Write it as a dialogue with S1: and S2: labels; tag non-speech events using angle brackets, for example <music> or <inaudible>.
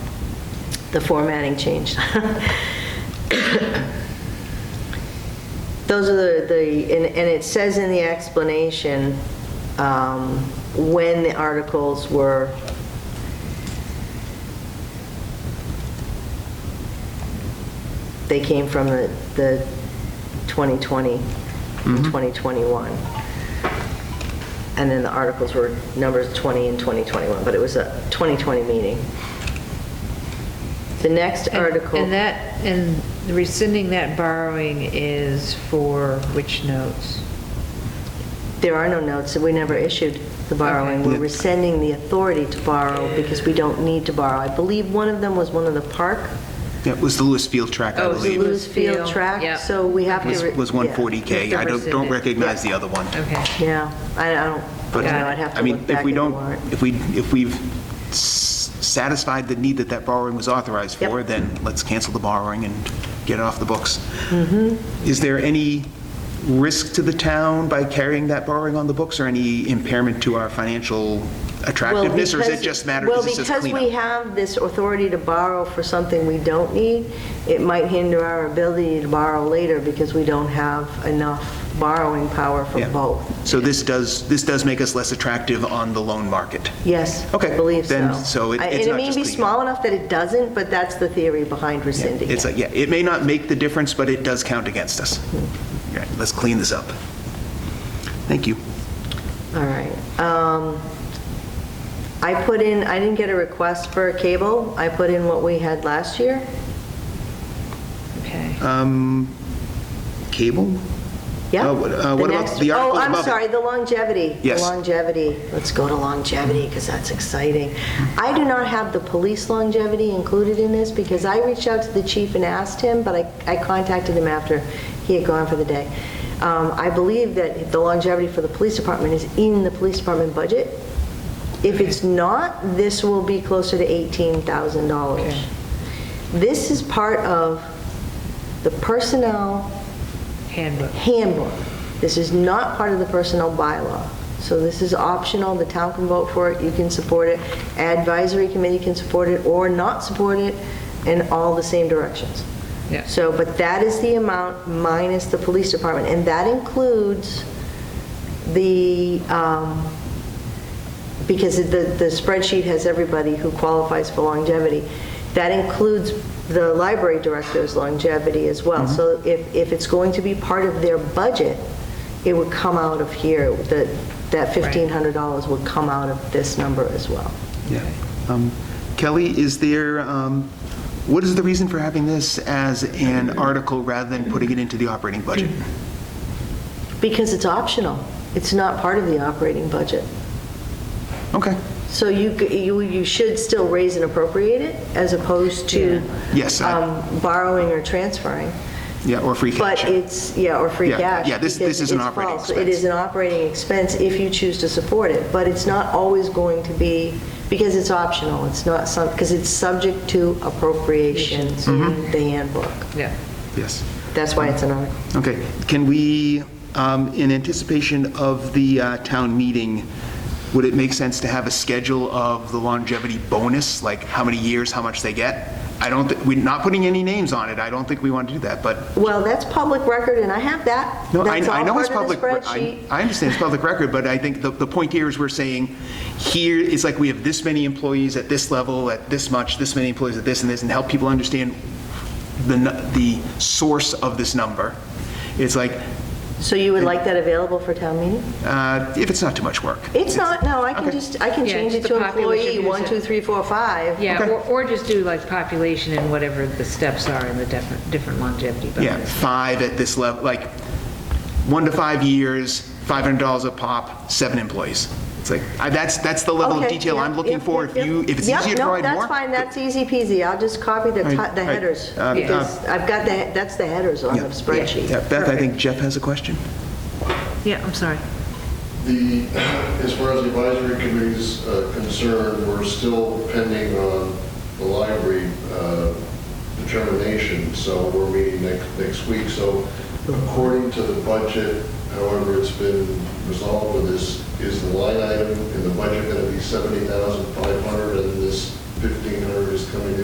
S1: the formatting changed. <laughs> Those are the- the, and and it says in the explanation um, when the articles were, they came from the the 2020 and 2021. And then the articles were numbers 20 and 2021, but it was a 2020 meeting. The next
S2: And-
S1: article.
S2: And that, and rescinding that borrowing is for which notes?
S1: There are no notes, we never issued the borrowing. We're rescinding the authority to borrow because we don't need to borrow. I believe one of them was one of the park,
S3: That was the Lewis Field track, I
S2: Oh, it was the
S3: believe.
S2: Lewis-
S1: Lewis Field
S2: Field,
S1: track,
S2: yeah.
S1: so we have to...
S3: Was
S1: re-
S3: was
S2: Yeah.
S3: 140K. I don't- don't recognize the other one.
S2: Okay.
S1: Yeah, I I don't, I
S3: But,
S1: don't know, I'd have
S3: I
S1: to
S3: mean,
S1: look
S3: if
S1: back
S3: we
S1: at the
S3: don't,
S1: warrant.
S3: if we, if we've s- satisfied the need that that borrowing was authorized
S1: Yep.
S3: for, then let's cancel the borrowing and get it off the books.
S1: Mm-hmm.
S3: Is there any risk to the town by carrying that borrowing on the books, or any impairment to our financial
S1: Well,
S3: attractiveness? Or is it
S1: because-
S3: just matter, because it's just
S1: Well, because we
S3: cleanup?
S1: have this authority to borrow for something we don't need, it might hinder our ability to borrow later because we don't have enough borrowing power for
S3: Yeah.
S1: both.
S3: So this does, this does make us less attractive on the loan market?
S1: Yes.
S3: Okay,
S1: I believe so.
S3: then, so it-
S1: I-
S3: it's not
S1: And it
S3: just
S1: may be
S3: the-
S1: small enough that it doesn't, but that's the theory behind rescinding
S3: It's
S1: it.
S3: like, yeah, it may not make the difference, but it does count against us. Right, let's clean this up. Thank you.
S1: All right. Um, I put in, I didn't get a request for cable. I put in what we had last year.
S2: Okay.
S3: Um, Cable?
S1: Yeah.
S3: Uh, what- uh, what about
S1: next-
S3: the article
S1: Oh, I'm
S3: above it?
S1: sorry, the longevity. The
S3: Yes.
S1: Longevity. Let's go to longevity because that's exciting. I do not have the police longevity included in this because I reached out to the chief and asked him, but I I contacted him after he had gone for the day. Um, I believe that the longevity for the police department is in the police department budget. If it's not, this will be closer to $18,000. This is part of the personnel
S2: Handbook.
S1: handbook. This is not part of the personnel bylaw. So this is optional, the town can vote for it, you can support it, advisory committee can support it or not support it, in all the same directions.
S2: Yeah.
S1: So, but that is the amount minus the police department, and that includes the, um, because the the spreadsheet has everybody who qualifies for longevity. That includes the library director's longevity as well. So if, if it's going to be part of their budget, it would come out of here, that, that $1,500 would come out of this number as well.
S3: Yeah. Um, Kelly, is there, um, what is the reason for having this as an article rather than putting it into the operating budget?
S1: Because it's optional. It's not part of the operating budget.
S3: Okay,
S1: So you, c- you, you should still raise and appropriate it as opposed to
S3: Yes, I-
S1: um, borrowing or transferring.
S3: yeah, or free cash.
S1: But it's, yeah, or free
S3: Yeah,
S1: cash.
S3: yeah, this-
S1: because
S3: this is an
S1: it's
S3: operating
S1: false. It is an operating expense if you choose to support it, but it's not always going to be, because it's optional, it's not some, because it's subject to appropriations
S3: Mm-hmm.
S1: in the handbook.
S2: Yeah.
S3: Yes.
S1: That's why it's an article.
S3: Okay, can we, um, in anticipation of the uh, town meeting, would it make sense to have a schedule of the longevity bonus, like how many years, how much they get? I don't, thi- we're not putting any names on it, I don't think we want to do that, but,
S1: Well, that's public record, and I have that.
S3: no, I
S1: That's all
S3: I know it's
S1: part of the
S3: public. re- I
S1: spreadsheet.
S3: I understand it's public record, but I think the, the point here is we're saying, here, it's like we have this many employees at this level, at this much, this many employees at this and this, and help people understand the, nu- the source of this number. It's like,
S1: So you would like that available for town meeting?
S3: Uh, If it's not too much work.
S1: It's not, no, I can
S3: Okay.
S1: just, I can
S2: Yeah,
S1: change it
S2: just
S1: to
S2: the population
S1: employee,
S2: use
S1: one,
S2: it.
S1: two, three, four, five.
S2: Yeah,
S3: Okay.
S2: or, or just do like population and whatever the steps are in the different, different longevity
S3: Yeah,
S2: bonus.
S3: five at this level, like, one to five years, $500 a pop, seven employees. It's like, I- that's, that's the level of
S1: Okay,
S3: detail I'm
S1: yep,
S3: looking
S1: yep,
S3: for.
S1: yep,
S3: If you,
S1: yep.
S3: if it's
S1: Yep,
S3: easier to provide
S1: No,
S3: more.
S1: that's fine, that's easy peasy. I'll just copy the
S3: All right,
S1: ti- the
S3: all right.
S1: headers.
S3: Um,
S1: Because I've got the, he- that's the headers on
S3: Yeah.
S1: the spreadsheet.
S3: Yeah, Beth, I think Jeff has a question.
S2: Yeah, I'm sorry.
S4: The, <clears throat> as far as the advisory committee's uh, concerned, we're still pending on the library uh, determination, so we're meeting next, next week. So according to the budget, however it's been resolved with this, is the line item in the budget going to be 70,500 and this 1,500 is coming in?